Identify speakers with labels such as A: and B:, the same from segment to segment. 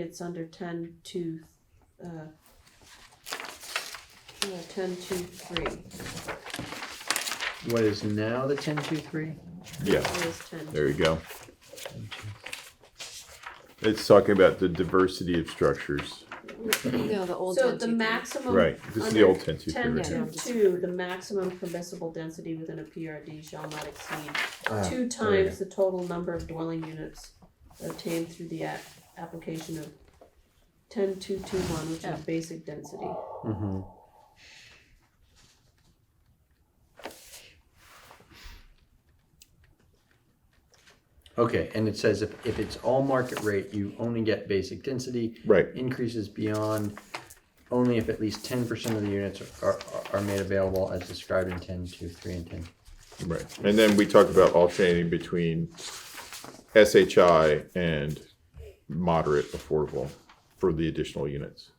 A: It's under ten two, uh, no, ten two three,
B: What is now the ten two three?
C: Yeah,
A: it is ten.
C: there you go. It's talking about the diversity of structures.
D: No, the old.
A: So
D: one,
A: the
D: two, three.
A: maximum.
C: Right, this is the old ten two three
A: Ten
C: right
D: yeah.
A: two
C: here.
A: two, the maximum permissible density within a PRD shall not exceed
B: Ah,
A: two
C: we
A: times the total number of dwelling units obtained through the app, application of ten two two one, which is basic density.
B: Mm-hmm. Okay, and it says if, if it's all market rate, you only get basic density.
C: Right,
B: Increases beyond only if at least ten percent of the units are, are, are made available as described in ten two three and ten.
C: right. And then we talk about alternating between SHI and moderate affordable for the additional units.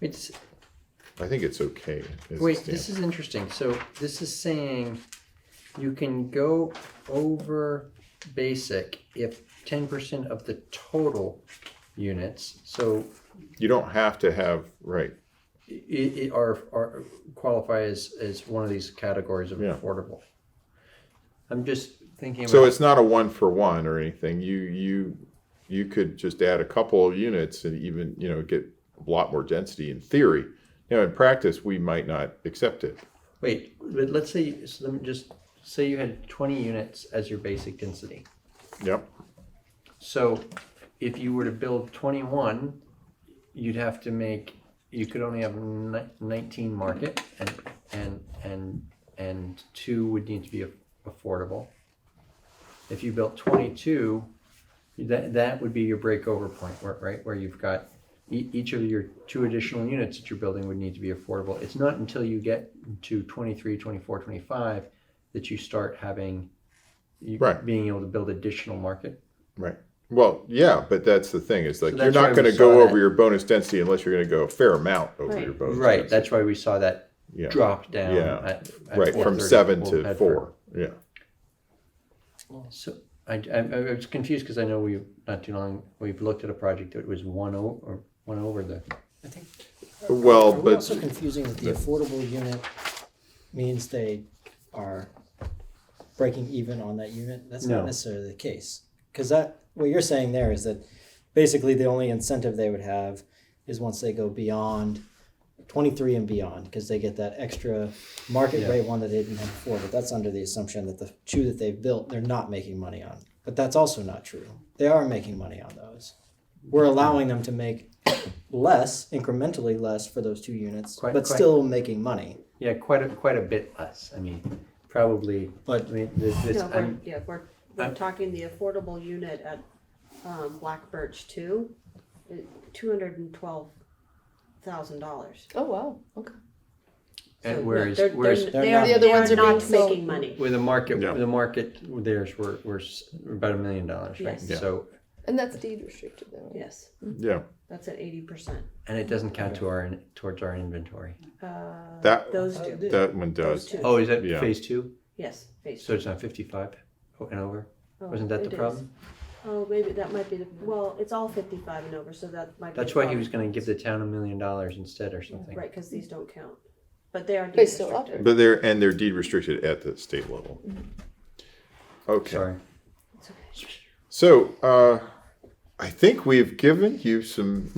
B: It's
C: I think it's okay. as it
B: Wait,
C: stands.
B: this is interesting. So this is saying you can go over basic if ten percent of the total units, so
C: You don't have to have, right,
B: it, it are are qualify as as one of these categories of
C: Yeah.
B: affordable. I'm just thinking about
C: So it's not a one for one or anything. You you you could just add a couple of units and even you know get a lot more density in theory. Now in practice, we might not accept it.
B: wait, but let's say so let me just say you had twenty units as your basic density.
C: Yep.
B: So if you were to build 21, you'd have to make, you could only have ni- 19 market and, and, and, and two would need to be a- affordable. If you built 22, that, that would be your breakover point, where- right? Where you've got e- each of your two additional units that you're building would need to be affordable. It's not until you get to 23, 24, 25 that you start having, you
C: Right.
B: being able to build additional market.
C: Right. Well, yeah, but that's the thing. Is like you're
B: that's why
C: not
B: we
C: going to
B: saw
C: go
B: that.
C: over your bonus density unless you're going to go a fair amount over
A: Right.
C: your bonus.
B: Right,
C: density.
B: that's why we saw that
C: yeah.
B: drop down.
C: Yeah.
B: at- at
C: Right from
B: 4:30
C: seven
B: Old
C: to
B: Bedford.
C: four. Yeah.
B: So I, I, I was confused because I know we, not too long, we've looked at a project that was one o- or one over the,
E: I think,
C: Well,
E: are we
C: but
E: also confusing that the affordable unit means they are breaking even on that unit? That's
B: No.
E: not necessarily the case. Because that, what you're saying there is that basically the only incentive they would have is once they go beyond twenty-three and beyond, because they get that extra market
B: Yeah.
E: rate one that they didn't have before, but that's under the assumption that the two that they've built, they're not making money on. But that's also not true. They are making money on those. We're allowing them to make less, incrementally less for those two units,
B: Quite-
E: but
B: quite-
E: still making money.
B: yeah, quite a, quite a bit less. I mean, probably, I
E: But
B: mean, this, this,
A: No, we're,
B: I'm,
A: yeah, we're, we're
B: I'm-
A: talking the affordable unit at, um, Black Birch two, two hundred and twelve thousand dollars.
D: Oh, wow, okay.
B: and whereas,
A: they're,
B: whereas
A: they're,
E: They're
A: they
E: not
A: are,
E: The
D: other
A: they
D: ones
A: are
D: are being
A: not
D: sold.
A: making money.
B: with the market,
C: Yeah.
B: the market theirs were, were s- were about a million dollars, right?
A: Yes.
C: Yeah.
B: So,
D: And that's deed restricted then. right?
A: Yes,
C: yeah,
A: that's at eighty percent.
B: and it doesn't count to our, in- towards our inventory.
A: Uh,
C: That-
A: those
D: Oh,
A: two.
C: that one
A: Those two.
C: does.
B: Oh, is that
C: Yeah.
B: phase two?
A: Yes, phase
B: So it's not fifty-five and over?
A: Oh,
B: Wasn't that
A: it
B: the
A: is.
B: problem?
A: Oh, maybe that might be the, well, it's all fifty-five and over, so that might be.
B: That's
A: the
B: why he
A: problem.
B: was gonna give the town a million dollars instead or something.
A: Right, cause these don't count, but they are
D: They still
A: derestricted.
D: offer.
C: But they're and they're deed restricted at the state level. Okay.
B: Sorry.
A: It's okay.
C: So, uh, I think we've given you some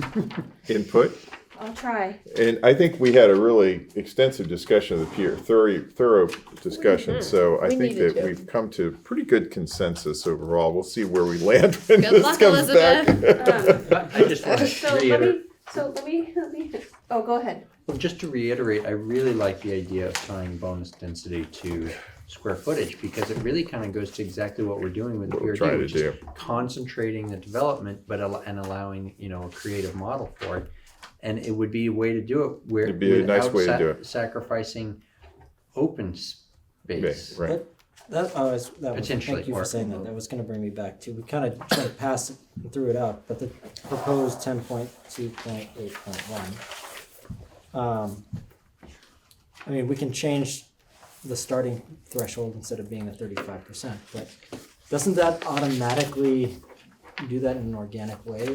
C: input,
A: I'll try.
C: and I think we had a really extensive discussion of the peer, thorough, thorough discussion. So I
D: Mm-hmm. We
C: think
D: needed
C: that
D: to.
C: we've come to pretty good consensus overall. We'll see where we land when
D: Good
C: this
D: luck,
C: comes back.
A: Um,
B: But I just wanna
A: So let
B: reiterate,
A: me, so let me, let me, oh, go ahead.
B: well, just to reiterate, I really like the idea of tying bonus density to square footage because it really kind of goes to exactly what we're doing with
C: What we're
B: PRD,
C: trying to
B: which is
C: do.
B: concentrating the development but al- and allowing you know a creative model for it, and it would be a way to do it where
C: It'd be a nice
B: without
C: way to do it.
B: sacrificing open space.
C: Right.
E: that, oh, it's- that was,
B: Potentially,
E: thank you
B: or-
E: for saying that. That was going to bring me back to. We kind of jumped past it and threw it out, but the proposed 10.2.8.1. Um, I mean, we can change the starting threshold instead of being at 35%, but doesn't that automatically do that in an organic way?